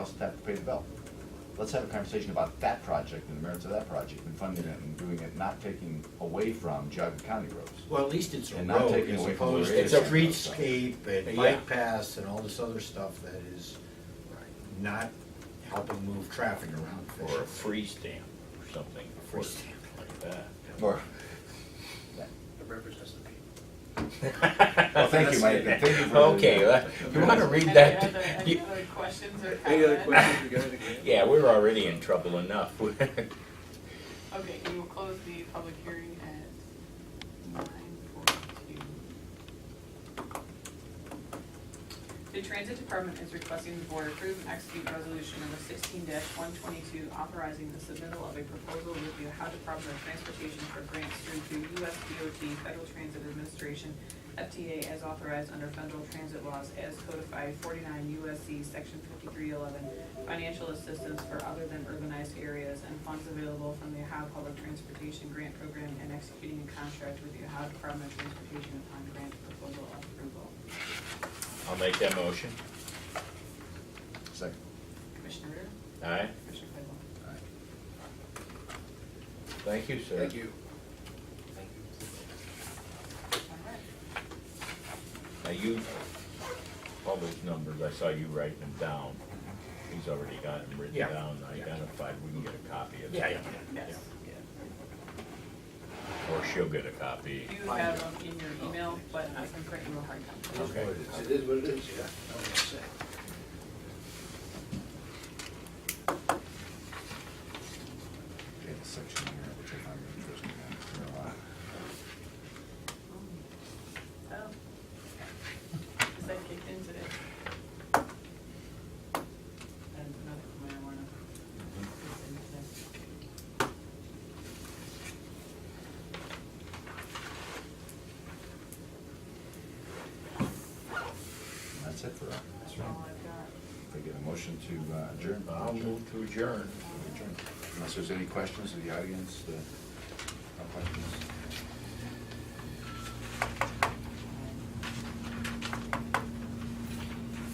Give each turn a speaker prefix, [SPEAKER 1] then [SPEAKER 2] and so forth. [SPEAKER 1] else would have to pay the bill. Let's have a conversation about that project and the merits of that project and funding it and doing it, not taking away from Geogga County roads.
[SPEAKER 2] Well, at least it's a
[SPEAKER 1] And not
[SPEAKER 2] road
[SPEAKER 1] taking
[SPEAKER 2] as
[SPEAKER 1] away from the radius and all
[SPEAKER 2] opposed to
[SPEAKER 1] that stuff.
[SPEAKER 2] streetscape and
[SPEAKER 1] Yeah.
[SPEAKER 2] bike paths and all this other stuff that is not helping move traffic around
[SPEAKER 3] Or a
[SPEAKER 2] efficiently.
[SPEAKER 3] free stamp or something.
[SPEAKER 2] Free stamp.
[SPEAKER 3] Like that.
[SPEAKER 1] Or,
[SPEAKER 4] The river's just a peak.
[SPEAKER 1] well, thank you, Mike, and thank you for. the-
[SPEAKER 3] Okay, well, you wanna read that?
[SPEAKER 5] Any other, any
[SPEAKER 3] You-
[SPEAKER 5] other questions or comments?
[SPEAKER 4] Any other questions regarding that?
[SPEAKER 3] Yeah, we're already in trouble enough.
[SPEAKER 5] Okay, we will close the public hearing at nine forty-two. The Transit Department is requesting the board approve and execute resolution number sixteen one twenty-two authorizing the submittal of a proposal with the Ohio Department of Transportation for grants through to US DOT Federal Transit Administration, FTA, as authorized under federal transit laws as codified forty-nine USC section fifty-three eleven, financial assistance for other than urbanized areas and funds available from the Ohio Public Transportation Grant Program and executing a contract with the Ohio Department of Transportation upon grant proposal approval.
[SPEAKER 3] I'll make that motion.
[SPEAKER 1] Second.
[SPEAKER 5] Commissioner Rea?
[SPEAKER 3] Aye.
[SPEAKER 5] Commissioner Claypool?
[SPEAKER 1] All right.
[SPEAKER 3] Thank you, sir.
[SPEAKER 4] Thank you.
[SPEAKER 5] All right.
[SPEAKER 3] Now you, all those numbers, I saw you writing them down. He's already got them written
[SPEAKER 2] Yeah.
[SPEAKER 3] down,
[SPEAKER 2] Yeah.
[SPEAKER 3] identified. We can get a copy of it.
[SPEAKER 2] Yeah, yeah, yeah,
[SPEAKER 5] Yes.
[SPEAKER 2] yeah.
[SPEAKER 3] Or she'll get a copy.
[SPEAKER 5] You have them in your email, but I can print you a hard copy.
[SPEAKER 2] It is
[SPEAKER 3] Okay.
[SPEAKER 2] what it is.
[SPEAKER 4] It is what it is, yeah. I don't know what to say.
[SPEAKER 1] Okay, the section here, which I found interesting, uh, there are a lot.
[SPEAKER 5] Oh. Is that kicked in today? And another marijuana. is in today.
[SPEAKER 1] That's it for, uh,
[SPEAKER 5] That's all I've got.
[SPEAKER 1] if I get a motion to uh, adjourn.
[SPEAKER 3] I'll move to adjourn.
[SPEAKER 1] Adjourn. Unless there's any questions of the audience, uh,